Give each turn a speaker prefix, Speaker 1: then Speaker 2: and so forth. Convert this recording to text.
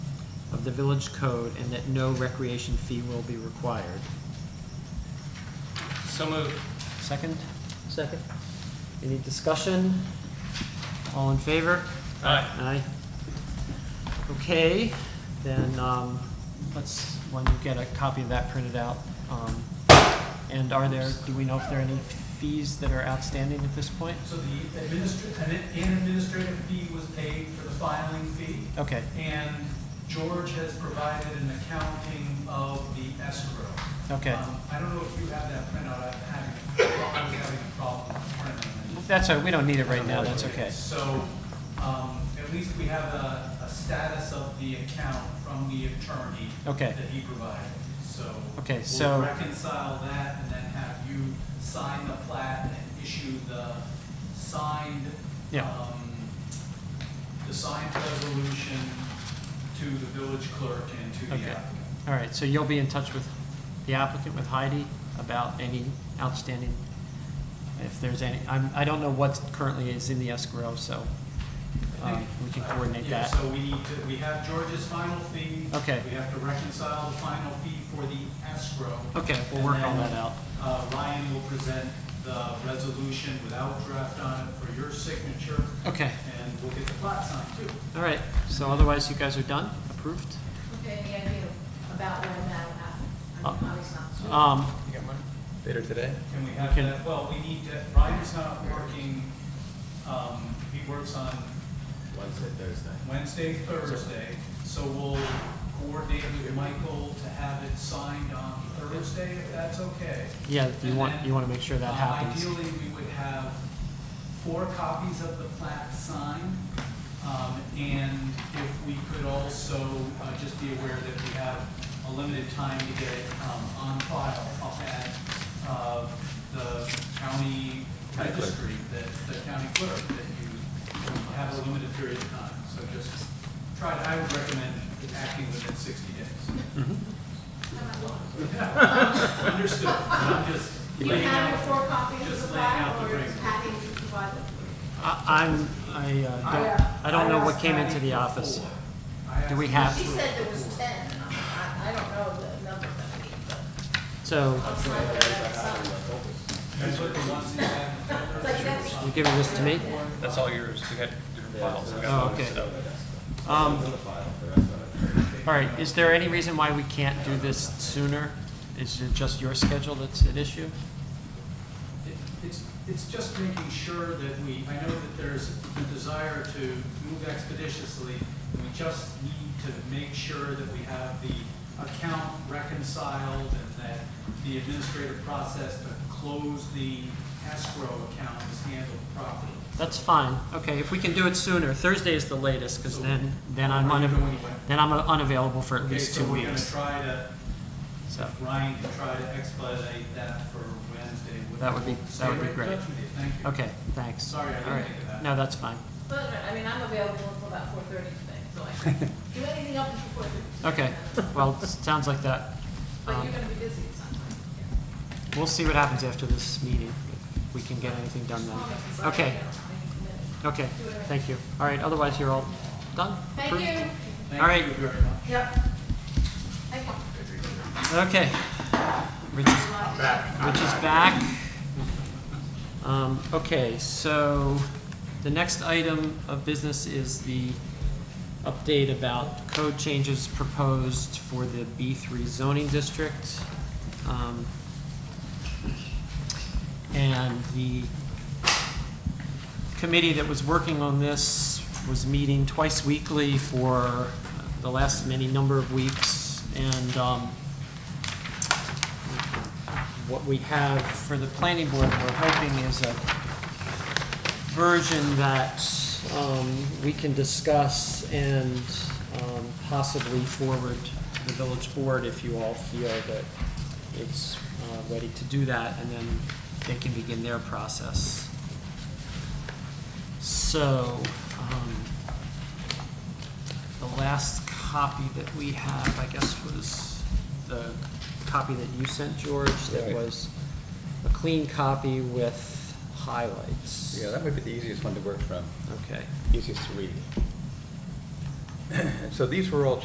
Speaker 1: of the village code and that no recreation fee will be required.
Speaker 2: So moved.
Speaker 1: Second? Second. Any discussion? All in favor?
Speaker 2: Aye.
Speaker 1: Aye. Okay, then, um, let's, when you get a copy of that printed out, um, and are there, do we know if there are any fees that are outstanding at this point?
Speaker 3: So the administr- an an administrative fee was paid for the filing fee,
Speaker 1: Okay,
Speaker 3: and George has provided an accounting of the escrow.
Speaker 1: okay.
Speaker 3: Um, I don't know if you have that printout, I'm having, I was having a problem with printing it.
Speaker 1: That's all right, we don't need it right now, that's okay.
Speaker 3: So, um, at least we have a, a status of the account from the attorney
Speaker 1: Okay,
Speaker 3: that he provided, so.
Speaker 1: Okay,
Speaker 3: we'll
Speaker 1: so-
Speaker 3: reconcile that and then have you sign the plat and issue the signed,
Speaker 1: Yeah.
Speaker 3: um, the signed resolution to the village clerk and to the
Speaker 1: Okay.
Speaker 3: applicant.
Speaker 1: all right, so you'll be in touch with the applicant, with Heidi, about any outstanding, if there's any, I'm, I don't know what currently is in the escrow, so, um, we can coordinate
Speaker 3: Uh, Yeah,
Speaker 1: that.
Speaker 3: so we need to, we have George's final fee.
Speaker 1: Okay.
Speaker 3: We have to reconcile the final fee for the escrow.
Speaker 1: Okay, we'll work all
Speaker 3: And
Speaker 1: that
Speaker 3: then-
Speaker 1: out.
Speaker 3: Uh, Ryan will present the resolution without draft on it for your signature,
Speaker 1: Okay,
Speaker 3: and we'll get the plat signed too.
Speaker 1: all right, so otherwise you guys are done, approved?
Speaker 4: Okay, any idea about when that'll happen?
Speaker 1: Uh,
Speaker 4: I mean, obviously not. soon.
Speaker 1: Um,
Speaker 5: Later today?
Speaker 3: Can we have
Speaker 1: Okay.
Speaker 3: that, well, we need to, Ryan's not working, um, he works on
Speaker 5: Wednesday, Thursday.
Speaker 3: Wednesday, Thursday, so we'll coordinate with Michael to have it signed on Thursday, if that's okay.
Speaker 1: yeah, you
Speaker 3: And
Speaker 1: want,
Speaker 3: then,
Speaker 1: you wanna make sure that
Speaker 3: Uh,
Speaker 1: happens.
Speaker 3: Ideally, we would have four copies of the plat signed, um, and if we could also uh, just be aware that we have a limited time to get it um, on file up at uh, the county
Speaker 5: County clerk.
Speaker 3: registry, that the county clerk, that you have a limited period of time, so just try, to- I would recommend acting within sixty days.
Speaker 1: Mm-hmm.
Speaker 4: How about one?
Speaker 3: Understood, I'm just
Speaker 4: Do you
Speaker 3: laying
Speaker 4: have
Speaker 3: out-
Speaker 4: four copies of the
Speaker 3: just laying out
Speaker 4: file,
Speaker 3: the
Speaker 4: or is
Speaker 3: framework.
Speaker 4: Patty to provide them? for
Speaker 1: I, I'm, I, uh, don't, I don't know what came into the office. Do we
Speaker 4: you? She
Speaker 1: have,
Speaker 4: said there was ten, and I, I don't know the number that we, but
Speaker 1: so,
Speaker 4: I'll sign whatever, so.
Speaker 3: That's what the ones that have
Speaker 4: It's like, that's,
Speaker 1: you giving this to me?
Speaker 2: That's all yours. We got different files. We
Speaker 1: Oh,
Speaker 2: got
Speaker 1: okay.
Speaker 2: so-
Speaker 1: Um, all right, is there any reason why we can't do this sooner? Is it just your schedule that's at issue?
Speaker 3: It's, it's just making sure that we, I know that there's the desire to move expeditiously, and we just need to make sure that we have the account reconciled and that the administrative process to close the escrow account is handled properly.
Speaker 1: That's fine, okay, if we can do it sooner, Thursday is the latest, cause then, then I'm
Speaker 3: Are you
Speaker 1: unav-
Speaker 3: going away?
Speaker 1: then I'm unavailable for at
Speaker 3: Okay,
Speaker 1: least
Speaker 3: so
Speaker 1: two
Speaker 3: we're gonna
Speaker 1: weeks,
Speaker 3: try to,
Speaker 1: so.
Speaker 3: Ryan can try to expedite that for Wednesday.
Speaker 1: That would be-
Speaker 3: We'll
Speaker 1: that
Speaker 3: stay
Speaker 1: would be
Speaker 3: right in
Speaker 1: great.
Speaker 3: touch with you. Thank you.
Speaker 1: Okay, thanks.
Speaker 3: Sorry, I didn't
Speaker 1: All right.
Speaker 3: think of that.
Speaker 1: No, that's fine.
Speaker 4: but, I mean, I'm available until about four thirty today, so I can do anything up until four thirty.
Speaker 1: Okay, well, it sounds like that.
Speaker 4: But
Speaker 1: Um,
Speaker 4: you're gonna be busy, it sounds like.
Speaker 1: We'll see what happens after this meeting, if we can get anything done
Speaker 4: Just
Speaker 1: then.
Speaker 4: long as it's
Speaker 1: Okay,
Speaker 4: like,
Speaker 1: okay, thank you. All right, otherwise you're all done?
Speaker 4: you know,
Speaker 1: Approved?
Speaker 4: Thank you.
Speaker 1: All right.
Speaker 3: Thank you very much.
Speaker 4: Yep. Thank you.
Speaker 1: Okay. Rich is, Rich is back. Um, okay, so the next item of business is the update about code changes proposed for the B three zoning district. Um, And the committee that was working on this was meeting twice weekly for the last many number of weeks. And, um, what we have for the planning board, we're hoping is a version that um, we can discuss and um, possibly forward to the village board if you all feel that it's uh, ready to do that, and then they can begin their process. So, um, the last copy that we have, I guess, was the copy that you sent, George, that
Speaker 5: Right.
Speaker 1: was a clean copy with highlights.
Speaker 5: Yeah, that might be the easiest one to work from,
Speaker 1: Okay.
Speaker 5: easiest to read. And so these were all